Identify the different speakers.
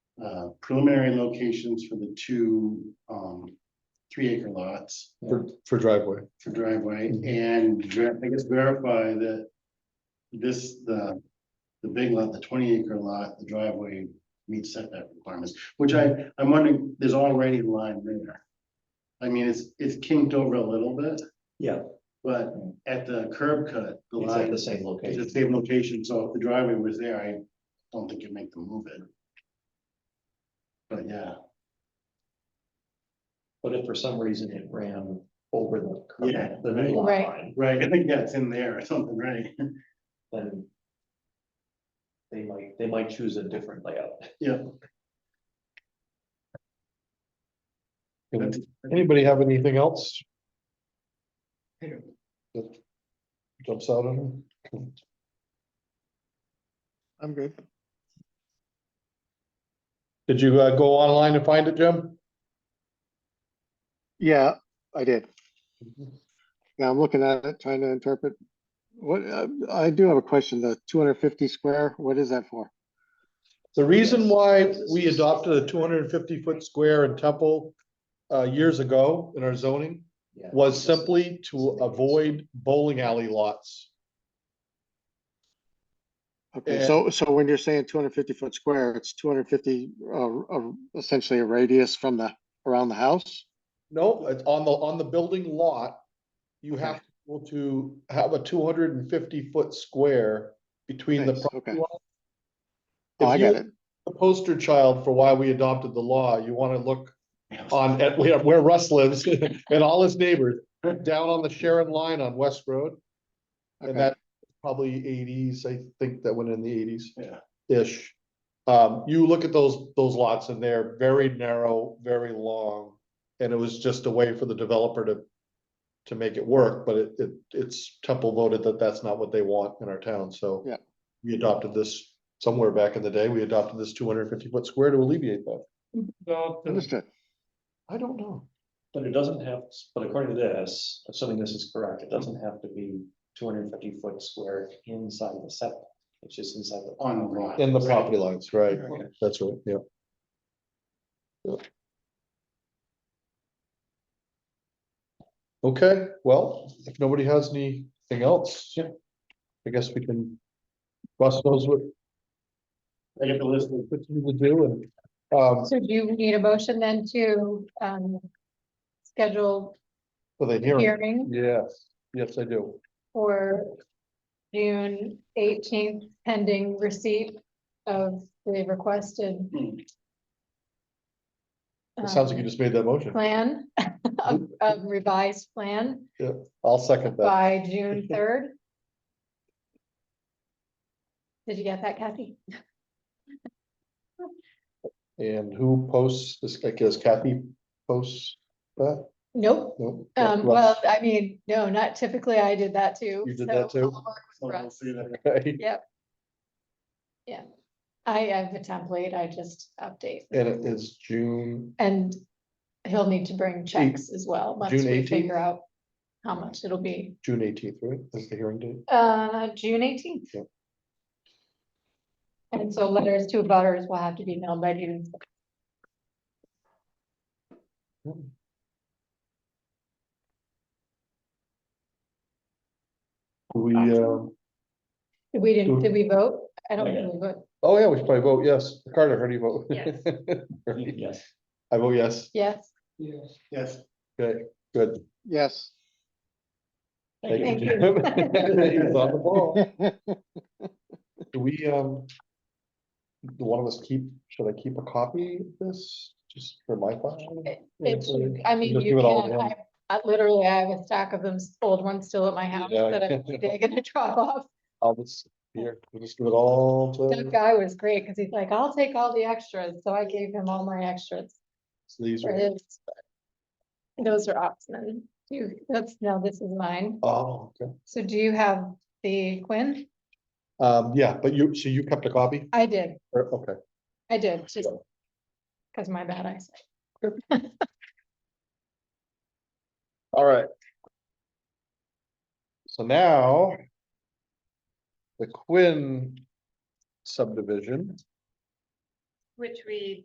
Speaker 1: uh, preliminary locations for the two, um, three acre lots
Speaker 2: for, for driveway.
Speaker 1: for driveway and ver- I guess verify that this, the, the big lot, the twenty acre lot, the driveway meets setback requirements, which I, I'm wondering, there's already a line there. I mean, it's, it's kinked over a little bit,
Speaker 3: Yeah,
Speaker 1: but at the curb cut, the
Speaker 3: it's at
Speaker 1: line
Speaker 3: the
Speaker 1: is
Speaker 3: same location.
Speaker 1: the same location, so if the driveway was there, I don't think you'd make them move it. But yeah,
Speaker 3: But if for some reason it ran over the.
Speaker 1: Yeah,
Speaker 3: current- The new lot
Speaker 4: right.
Speaker 3: line,
Speaker 1: right, I think that's in there or something, right?
Speaker 3: then. They might, they might choose a different layout.
Speaker 1: Yeah.
Speaker 2: Anybody have anything else? That Jumps out at them?
Speaker 5: I'm good.
Speaker 2: Did you uh, go online and find it, Jim?
Speaker 5: Yeah, I did. Yeah, I'm looking at it, trying to interpret. What, uh, I do have a question, the two hundred fifty square, what is that for?
Speaker 2: The reason why we adopted a two hundred and fifty foot square in Temple uh, years ago in our zoning
Speaker 3: Yeah.
Speaker 2: was simply to avoid bowling alley lots.
Speaker 5: Okay,
Speaker 2: Yeah.
Speaker 5: so, so when you're saying two hundred fifty foot square, it's two hundred fifty, uh, uh, essentially a radius from the, around the house?
Speaker 2: No, it's on the, on the building lot, you have to, be able to have a two hundred and fifty foot square between the.
Speaker 5: Nice,
Speaker 2: property
Speaker 5: okay.
Speaker 2: line.
Speaker 5: Oh, I
Speaker 2: If you-
Speaker 5: got it.
Speaker 2: the poster child for why we adopted the law. You want to look on at where where Russ lives and all his neighbors, down on the Sharon line on West Road.
Speaker 5: Okay.
Speaker 2: And that probably eighties, I think that went in the eighties.
Speaker 1: Yeah.
Speaker 2: Ish. Um, you look at those, those lots and they're very narrow, very long. And it was just a way for the developer to, to make it work, but it, it, it's Temple voted that that's not what they want in our town, so.
Speaker 5: Yeah.
Speaker 2: We adopted this somewhere back in the day, we adopted this two hundred and fifty foot square to alleviate that.
Speaker 5: Understood.
Speaker 2: I don't know.
Speaker 3: But it doesn't have, but according to this, assuming this is correct, it doesn't have to be two hundred and fifty foot square inside the setback. It's just inside the.
Speaker 1: On the lot.
Speaker 2: In the property lines, right,
Speaker 3: Okay.
Speaker 2: that's right, yeah. Yeah. Okay, well, if nobody has anything else, yeah, I guess we can. Russ knows what,
Speaker 1: I get the list of
Speaker 2: what we would do and, um,
Speaker 4: So do you need a motion then to, um, schedule
Speaker 2: for the hearing,
Speaker 4: hearing
Speaker 2: yes, yes, I do.
Speaker 4: for June eighteenth pending receipt of the requested
Speaker 2: It sounds like you
Speaker 4: um,
Speaker 2: just made Hmm. that motion,
Speaker 4: Plan, of of revised plan
Speaker 2: I'll second that,
Speaker 4: by June third. Did you get that, Kathy?
Speaker 2: and who posts this, I guess Kathy posts that?
Speaker 4: Nope,
Speaker 2: Nope.
Speaker 4: um, well, I mean, no, not typically, I did that too.
Speaker 2: You did
Speaker 4: so
Speaker 2: that too?
Speaker 4: I'll work with
Speaker 1: Oh, Well, we'll
Speaker 4: Russ.
Speaker 1: see that.
Speaker 2: Okay.
Speaker 4: I have a template, I just update.
Speaker 2: And it is June
Speaker 4: And he'll need to bring checks as well, once
Speaker 2: June
Speaker 4: we
Speaker 2: 18th?
Speaker 4: figure out how much it'll be.
Speaker 2: June eighteenth, right? That's the hearing date.
Speaker 4: Uh, June eighteenth.
Speaker 2: Yep.
Speaker 4: And so letters to abutters will have to be mailed by June.
Speaker 2: We,
Speaker 4: Awesome.
Speaker 2: um,
Speaker 4: Did We didn't,
Speaker 2: Sure.
Speaker 4: did we vote? I don't
Speaker 3: Yeah.
Speaker 4: think we voted.
Speaker 2: oh yeah, we should probably vote yes. Carter, how do you vote?
Speaker 4: Yes.
Speaker 2: Right.
Speaker 3: Yes.
Speaker 2: I vote yes.
Speaker 4: Yes,
Speaker 1: Yes,
Speaker 2: Okay, good.
Speaker 5: Yes.
Speaker 4: Thank you.
Speaker 2: Jim. He's on the ball. Do we, um, do one of us keep, should I keep a copy of this just for my file?
Speaker 4: It-
Speaker 2: Yeah,
Speaker 4: it's,
Speaker 2: so
Speaker 4: I mean,
Speaker 2: just
Speaker 4: you
Speaker 2: give it all
Speaker 4: can,
Speaker 2: to him.
Speaker 4: I, I literally, I have a stack of them, s- old ones still at my house
Speaker 2: Yeah.
Speaker 4: that I'm someday gonna drop off.
Speaker 2: I'll just, here, we'll just give it all
Speaker 4: That
Speaker 2: to,
Speaker 4: guy was great, cause he's like, I'll take all the extras, so I gave him all my extras.
Speaker 2: these
Speaker 4: for
Speaker 2: are,
Speaker 4: his, but Those are Oxman. Do you, that's, no, this is mine.
Speaker 2: oh, okay.
Speaker 4: So do you have the Quinn?
Speaker 2: Um, yeah, but you, so you kept a copy?
Speaker 4: I did,
Speaker 2: Or- Okay.
Speaker 4: I did, just because my bad eyesight.
Speaker 2: All right. So now. The Quinn subdivision.
Speaker 6: Which we